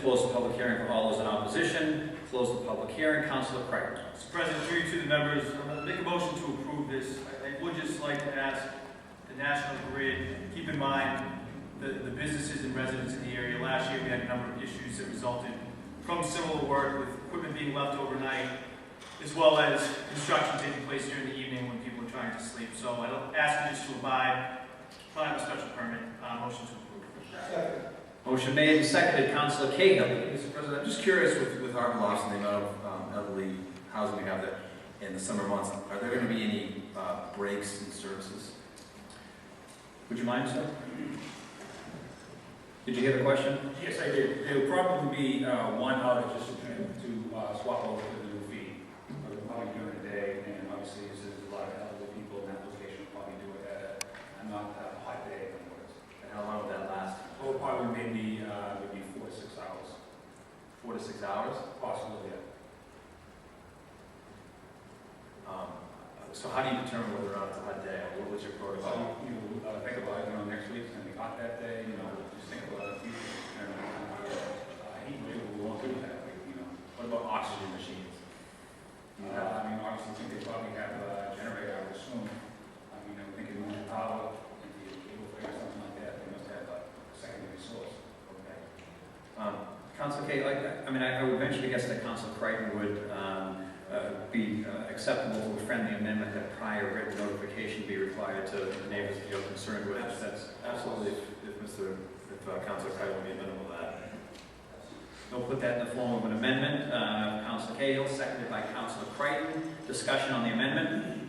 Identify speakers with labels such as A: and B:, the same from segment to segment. A: close the public hearing for all those in opposition, close the public hearing, Counselor Craig.
B: Mr. President, through you to the members, I'm gonna make a motion to approve this. I- I would just like to ask the National Grid, keep in mind the, the businesses and residents in the area. Last year, we had a number of issues that resulted from similar work with equipment being left overnight, as well as construction taking place during the evening when people are trying to sleep. So I don't ask you just to abide by the special permit, uh, motion to approve.
A: Motion made and seconded, Counselor Cahill.
C: Mr. President, I'm just curious with, with our loss and the amount of um, elderly housing we have there in the summer months, are there going to be any uh, breaks in services?
A: Would you mind, sir? Did you hear the question?
D: Yes, I did. There will probably be uh, one outage just to to, uh, swap over to the new feed. We're probably doing it today, and obviously, there's a lot of elderly people in that location, will probably do it at a not that hot day in the woods.
C: And how long will that last?
D: So it'll Oh, probably maybe, uh, maybe four to six hours,
C: Four to six hours?
D: possibly. yeah.
C: Um, So how do you determine whether or not it's a hot day? What was your protocol?
D: So you you, uh, think about it, you know, next week's gonna be hot that day, you know, just think about it. you know, uh, Heat wave, we won't do that, like, you know.
C: What about oxygen machines? Do you
D: Uh,
C: have-
D: I mean, obviously, I think they probably have a generator, I would assume. I mean, I'm thinking more power, maybe a cable or something like that, they must have a secondary source.
C: Okay.
A: Um, Counselor Kay, like, I mean, I I would venture to guess that Counselor Creighton would um, uh, be uh, acceptable for a friendly amendment that prior written notification be required to the neighbors that you're concerned with. That's
C: Absolutely, if- if Mr., if uh, Councilor Creighton would be amenable to that.
A: We'll put that in the form of an amendment. Uh, Counselor Cahill, seconded by Counselor Creighton. Discussion on the amendment.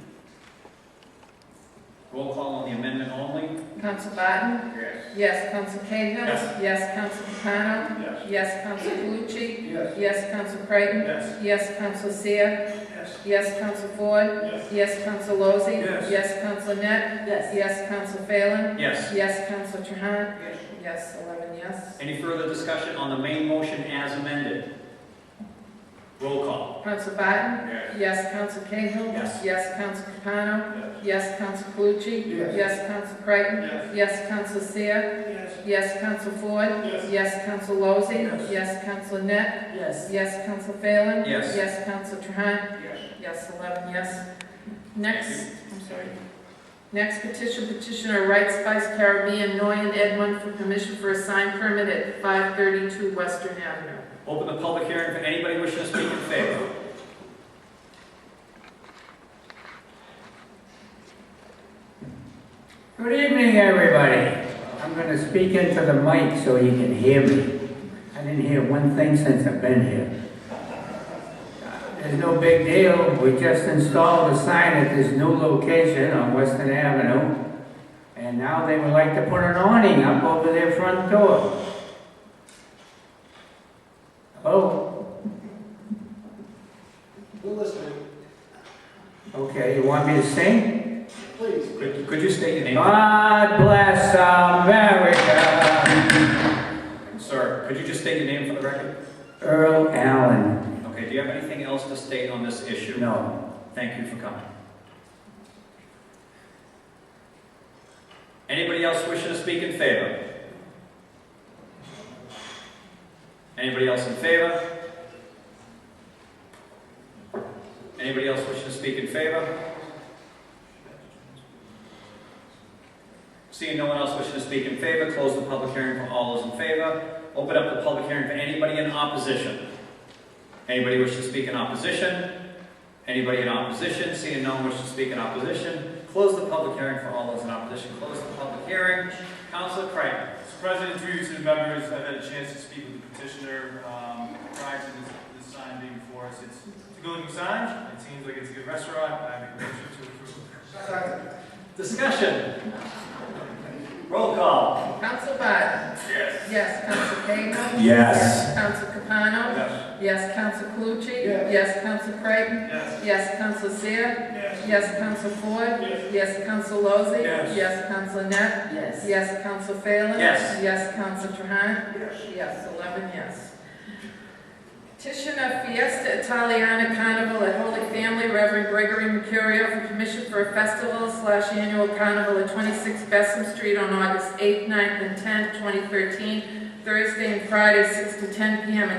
A: Roll call on the amendment only.
E: Council Barton?
D: Yes.
E: Yes. Council Cahill?
B: Yes.
E: Council Capano?
D: Yes.
E: Yes. Council Calucci?
D: Yes.
E: Yes. Council Creighton?
B: Yes.
E: Yes. Council Seer?
D: Yes.
E: Yes. Council Ford?
B: Yes.
E: Yes. Council Lozey?
B: Yes.
E: Yes. Council Net?
F: Yes.
E: Yes. Council Phelan?
A: Yes.
E: Yes. Council Trahan?
D: Yes.
E: Yes. Eleven yes.
A: Any further discussion on the main motion as amended? Roll call.
E: Council Barton?
D: Yes.
E: Yes. Council Cahill?
A: Yes.
E: Yes. Council Capano?
D: Yes.
E: Yes. Council Calucci?
D: Yes.
E: Yes. Council Creighton?
D: Yes.
E: Yes. Council Seer?
D: Yes.
E: Yes. Council Ford?
D: Yes.
E: Yes. Council Lozey?
D: Yes.
E: Yes. Council Net?
F: Yes.
E: Yes, Council Phelan?
A: Yes.
E: Yes, Council Trahan?
D: Yes.
E: Yes, eleven, yes. Next, I'm sorry. Next petition, petitioner Right Spice Caribbean, Noyan Edmund for permission for a sign permit at five thirty-two Western Avenue.
A: Open the public hearing for anybody wishing to speak in favor.
G: Good evening, everybody. I'm going to speak into the mic so you can hear me. I didn't hear one thing since I've been here. There's no big deal. We just installed a sign at this new location on Western Avenue. And now they would like to put an awning up over their front door. Hello?
H: We're listening,
G: Okay, you want me to sing?
H: please.
A: Could could you state your name?
G: God bless America.
A: Sir, could you just state your name for the record?
G: Earl Allen.
A: Okay, do you have anything else to state on this issue?
G: No.
A: Thank you for coming. Anybody else wishing to speak in favor? Anybody else in favor? Anybody else wishing to speak in favor? Seeing no one else wishing to speak in favor, close the public hearing for all those in favor. Open up the public hearing for anybody in opposition. Anybody wishing to speak in opposition? Anybody in opposition? Seeing no one wish to speak in opposition, close the public hearing for all those in opposition. Close the public hearing. Counselor Creighton.
B: Mr. President, through you to the members, I've had a chance to speak with the petitioner um, prior to this, this sign being before us. It's it's a good looking sign, it seems like it's a good restaurant, I make a motion to approve.
A: Discussion. Roll call.
E: Council Barton?
B: Yes.
E: Yes, Council Cahill?
G: Yes.
E: Council Capano?
B: Yes.
E: Yes, Council Calucci?
H: Yes.
E: Council Creighton?
B: Yes.
E: Yes, Council Seer?
B: Yes.
E: Yes, Council Ford?
B: Yes.
E: Yes, Council Lozey?
B: Yes.
E: Yes, Council Net?
F: Yes.
E: Yes, Counsel Phelan?
A: Yes.
E: Yes, Counsel Trahan?
B: Yes.
E: Yes, eleven yes. Petition of Fiesta Italiana Carnival at Holy Family Reverend Gregory Mercurio for permission for a festival slash annual carnival at twenty-six Bessem Street on August eighth, 9th, and tenth, twenty thirteen, Thursday and Friday, six to ten PM,